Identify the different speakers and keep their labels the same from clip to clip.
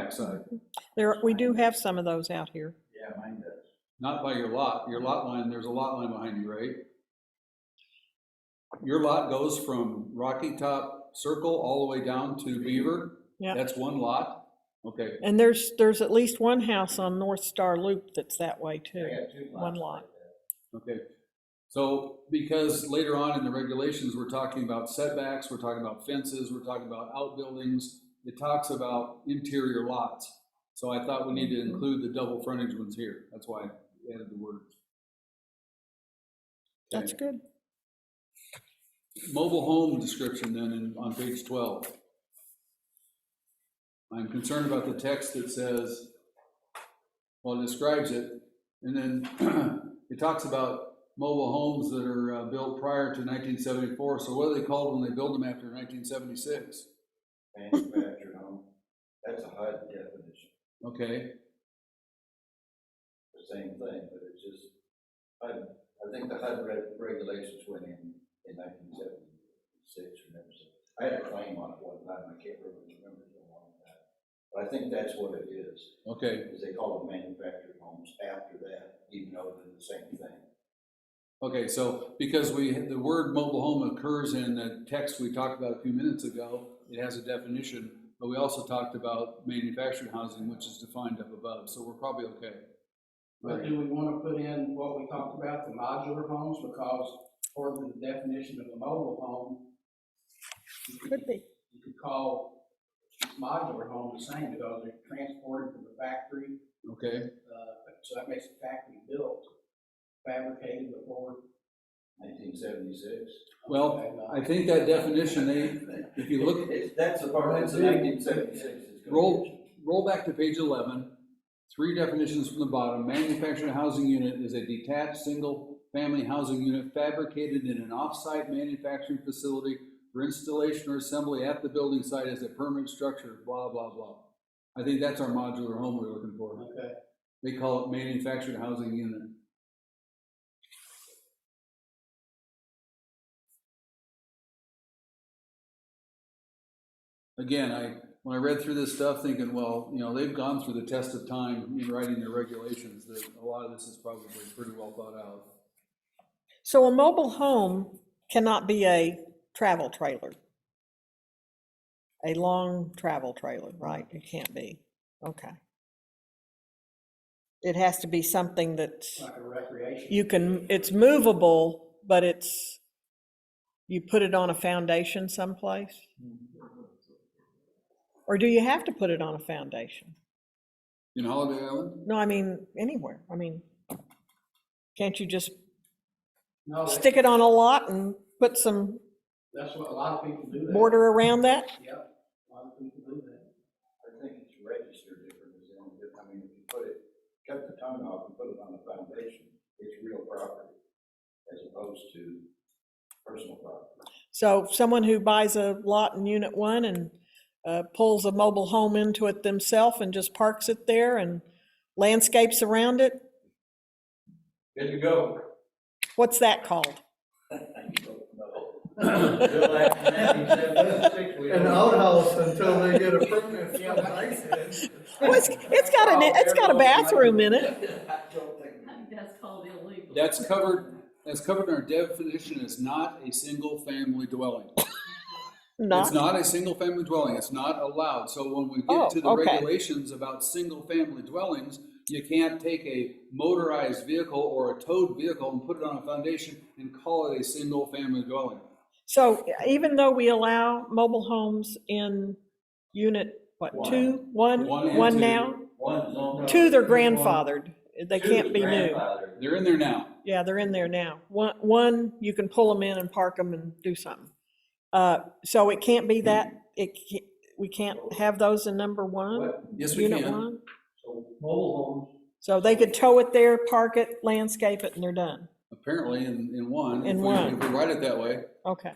Speaker 1: backside.
Speaker 2: There, we do have some of those out here.
Speaker 3: Yeah, mine does.
Speaker 1: Not by your lot, your lot line, there's a lot line behind you, right? Your lot goes from Rocky Top Circle all the way down to Beaver?
Speaker 2: Yeah.
Speaker 1: That's one lot? Okay,
Speaker 2: And there's, there's at least one house on North Star Loop that's that way too.
Speaker 3: I got two lots.
Speaker 2: One lot.
Speaker 1: okay. So, because later on in the regulations, we're talking about setbacks, we're talking about fences, we're talking about outbuildings, it talks about interior lots. So I thought we need
Speaker 3: Mm-hmm.
Speaker 1: to include the double frontage ones here, that's why I added the word.
Speaker 2: That's good.
Speaker 1: Mobile home description then in, on page twelve. I'm concerned about the text that says, well, it describes it, and then it talks about mobile homes that are uh, built prior to nineteen seventy-four, so what are they called when they build them after nineteen seventy-six?
Speaker 3: Manufactured home, that's a HUD definition,
Speaker 1: Okay,
Speaker 3: the same thing, but it's just, I, I think the HUD reg- regulations went in in nineteen seventy-six or never so. I had a claim on it one time, I can't really remember how long that, but I think that's what it is,
Speaker 1: okay,
Speaker 3: is they call them manufactured homes after that, even though they're the same thing.
Speaker 1: okay, so because we, the word mobile home occurs in the text we talked about a few minutes ago, it has a definition, but we also talked about manufactured housing, which is defined up above, so we're probably okay.
Speaker 4: But do we wanna put in what we talked about, the modular homes, because according to the definition of a mobile home,
Speaker 2: Could be.
Speaker 4: you could call modular home the same, because they're transported from the factory,
Speaker 1: Okay,
Speaker 4: uh, so that makes it factory built, fabricated before.
Speaker 3: Nineteen seventy-six.
Speaker 1: well, I think that definition, they, if you look,
Speaker 3: It's, that's the part, that's the nineteen seventy-six.
Speaker 1: roll, roll back to page eleven, three definitions from the bottom, manufactured housing unit is a detached, single-family housing unit fabricated in an off-site manufacturing facility for installation or assembly at the building site as a permanent structure, blah, blah, blah. I think that's our modular home we're looking for,
Speaker 4: Okay,
Speaker 1: they call it manufactured housing unit. again, I, when I read through this stuff, thinking, well, you know, they've gone through the test of time in writing their regulations, that a lot of this is probably pretty well thought out.
Speaker 2: So a mobile home cannot be a travel trailer. A long travel trailer, right? It can't be. Okay. It has to be something that's.
Speaker 4: like a recreation.
Speaker 2: you can, it's movable, but it's, you put it on a foundation someplace? Or do you have to put it on a foundation?
Speaker 1: In Holiday Island,
Speaker 2: No, I mean, anywhere, I mean, can't you just
Speaker 4: No, that's,
Speaker 2: stick it on a lot and put some
Speaker 4: that's what a lot of people do that.
Speaker 2: border around that?
Speaker 4: Yep, a lot of people do that.
Speaker 3: I think it's registered different, is the only diff- I mean, if you put it, cut the tongue off and put it on the foundation, it's real property as opposed to personal property.
Speaker 2: So someone who buys a lot in Unit One and uh, pulls a mobile home into it themselves and just parks it there and landscapes around it,
Speaker 3: Good to go.
Speaker 2: what's that called?
Speaker 5: an outhouse until they get a permit from the ISAC.
Speaker 2: Well, it's, it's got an, it's got a bathroom in it.
Speaker 6: I think that's called illegal.
Speaker 1: that's covered, that's covered in our definition, it's not a single-family dwelling. It's
Speaker 2: Not,
Speaker 1: not a single-family dwelling, it's not allowed, so when we
Speaker 2: Oh,
Speaker 1: get to the
Speaker 2: okay.
Speaker 1: regulations about single-family dwellings, you can't take a motorized vehicle or a towed vehicle and put it on a foundation and call it a single-family dwelling.
Speaker 2: so even though we allow mobile homes in unit, what,
Speaker 3: One.
Speaker 2: two, one,
Speaker 1: One and
Speaker 2: one
Speaker 1: two.
Speaker 2: now?
Speaker 3: One zone.
Speaker 2: Two, they're
Speaker 5: There's one.
Speaker 2: grandfathered, they can't be new.
Speaker 1: They're in there now.
Speaker 2: Yeah, they're in there now. One, one, you can pull them in and park them and do something. Uh, so it can't be that, it, ca- we can't have those in number one,
Speaker 1: Yes, we
Speaker 2: unit
Speaker 1: can.
Speaker 2: one?
Speaker 5: Mobile homes.
Speaker 2: So they could tow it there, park it, landscape it, and they're done.
Speaker 1: Apparently, in, in one. if
Speaker 2: In
Speaker 1: we-
Speaker 2: one.
Speaker 1: If we write it that way,
Speaker 2: Okay,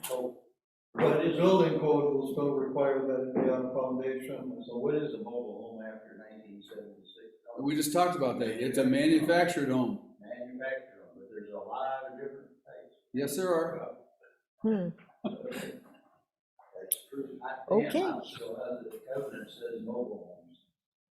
Speaker 5: But the building code will still require that it be on a foundation.
Speaker 3: So what is a mobile home after nineteen seventy-six?
Speaker 1: we just talked about that. It's a manufactured home.
Speaker 3: Manufactured, home, but there's a lot of different types.
Speaker 1: Yes, there are.
Speaker 2: hmm,
Speaker 3: That's true.
Speaker 2: Okay.
Speaker 3: So, uh, the covenant says mobile home.